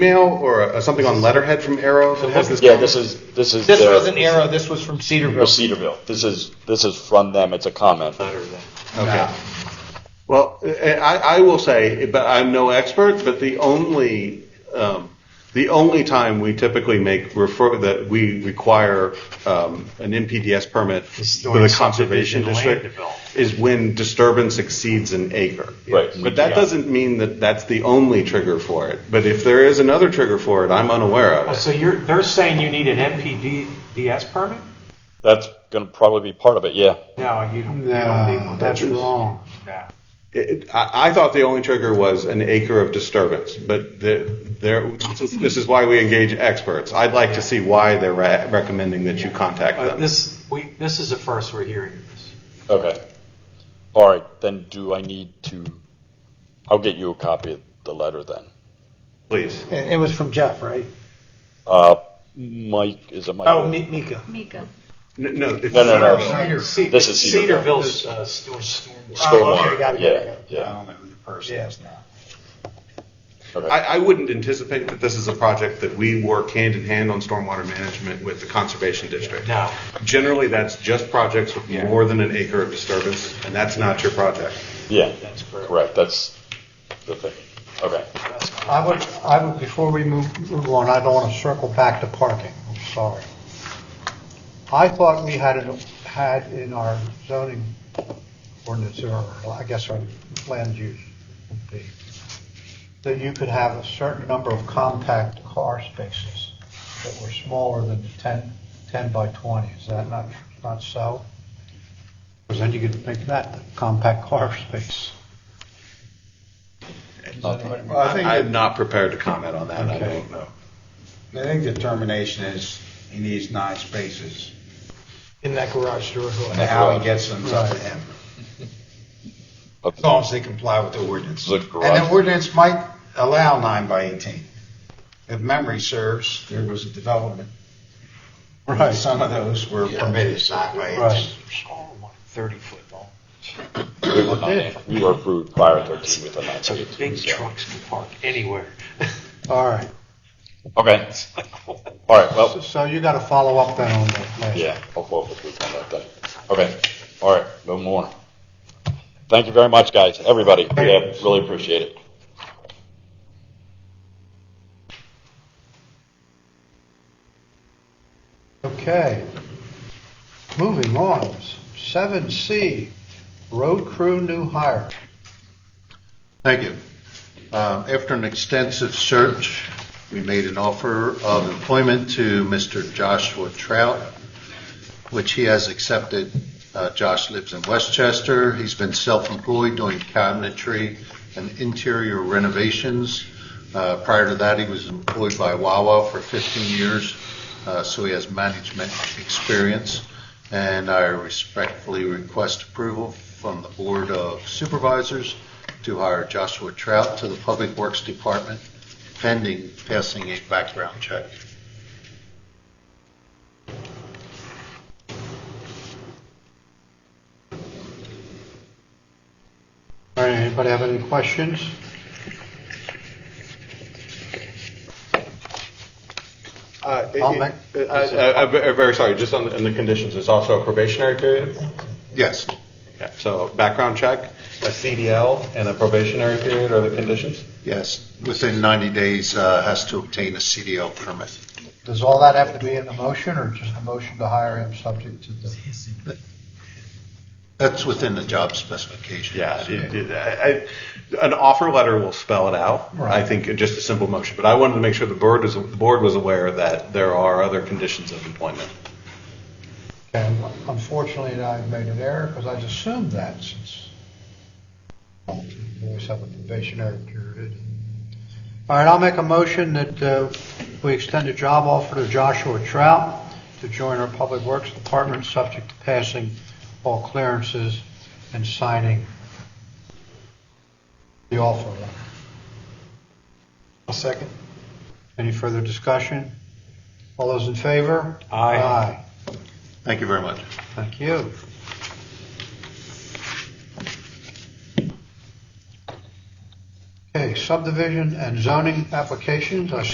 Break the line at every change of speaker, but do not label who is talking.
email or a- something on letterhead from Arrow that has this?
Yeah, this is, this is.
This
their-
wasn't Arrow, this was from Cedarville.
Well, Cedarville. This is, this is from them. It's a comment.
Okay. Well, I, I will say, but I'm no expert, but the only, um, the only time we typically make refer, that we require, um, an MPDS permit with
Is during
a conservation
subdivision land
district
development.
is when disturbance exceeds an acre.
Right.
But that
Yeah.
doesn't mean that that's the only trigger for it. But if there is another trigger for it, I'm unaware of
Oh,
it.
So you're, they're saying you need an MPDS permit?
That's going to probably be part of it, yeah.
No, you don't, you don't need
Nah,
one.
that's wrong.
Nah.
It- I, I thought the only trigger was an acre of disturbance, but the, there, this is why we engage experts. I'd like to see why they're re- recommending that you contact
Uh,
them.
This, we, this is the first we're hearing of this.
Okay. All right, then do I need to, I'll get you a copy of the letter then.
Please.
It it was from Jeff, right?
Uh, Mike, is it Mike?
Oh, Mi- Mika.
Mika.
N- No, it's-
No, no, no.
Ce-
This is Cedarville.
Cedarville's, uh, storm, storm.
Oh, okay, got
Stormwater,
it, got
yeah,
it.
yeah.
don't know who the person is now.
Okay.
I, I wouldn't anticipate that this is a project that we work hand in hand on stormwater management with the conservation district.
No.
Generally, that's just projects with
Yeah.
more than an acre of disturbance, and that's not your project.
Yeah,
That's correct.
correct, that's the thing. Okay,
I would, I would, before we move move on, I don't want to circle back to parking, I'm sorry. I thought we had, it- had in our zoning ordinance, or I guess our land use, would be, that you could have a certain number of compact car spaces that were smaller than the 10, 10 by 20, is that not, not so? Because then you could make that the compact car space.
Well, I think,
I'm
the-
not prepared to comment on that, I
Okay.
don't know.
I think the determination is he needs nine spaces.
In that garage door.
And how he gets them is up to him. As long as they comply with the ordinance.
The
And
garage-
the ordinance might allow nine by 18. If memory serves, there was a development. Right. Some of those were permitted nine by 18.
Right.
Thirty foot long.
we were not, we were approved prior to thirteen with a nine.
So the big trucks can park anywhere.
All right.
Okay, all right, well,
So you got to follow up then on that last.
Yeah, I'll follow up with Luke on that then. Okay, all right, no more. Thank you very much, guys, everybody. We have- really appreciate it.
Okay. Moving on, seven C, road crew new hire.
Thank you. Uh, After an extensive search, we made an offer of employment to Mr. Joshua Trout, which he has accepted. Uh, Josh lives in Westchester. He's been self-employed doing cabinetry and interior renovations. Uh, Prior to that, he was employed by Wawa for 15 years, uh, so he has management experience. And I respectfully request approval from the Board of Supervisors to hire Joshua Trout to the Public Works Department pending passing a background check.
All right, anybody have any questions?
Uh, it-
I'll make-
it- I- I- I'm ve- I'm very sorry, just on the, on the conditions, it's also a probationary period?
Yes.
Yeah, So background check, a CDL, and a probationary period are the conditions?
Yes, within 90 days, uh, has to obtain a CDL permit.
Does all that have to be in the motion or just a motion to hire him subject to the?
That's within the job specifications.
Yeah, it- it- I- I- an offer letter will spell it out, I
Right.
think, just a simple motion. But I wanted to make sure the board was, the board was aware that there are other conditions of employment.
And unfortunately, I made an error because I assumed that since we always have a probationary period. All right, I'll make a motion that uh, we extend a job offer to Joshua Trout to join our Public Works Department, subject to passing all clearances and signing the offer letter. A second. Any further discussion? All those in favor?
Aye.
Aye.
Thank you very much.
Thank you. Okay, subdivision and zoning applications, I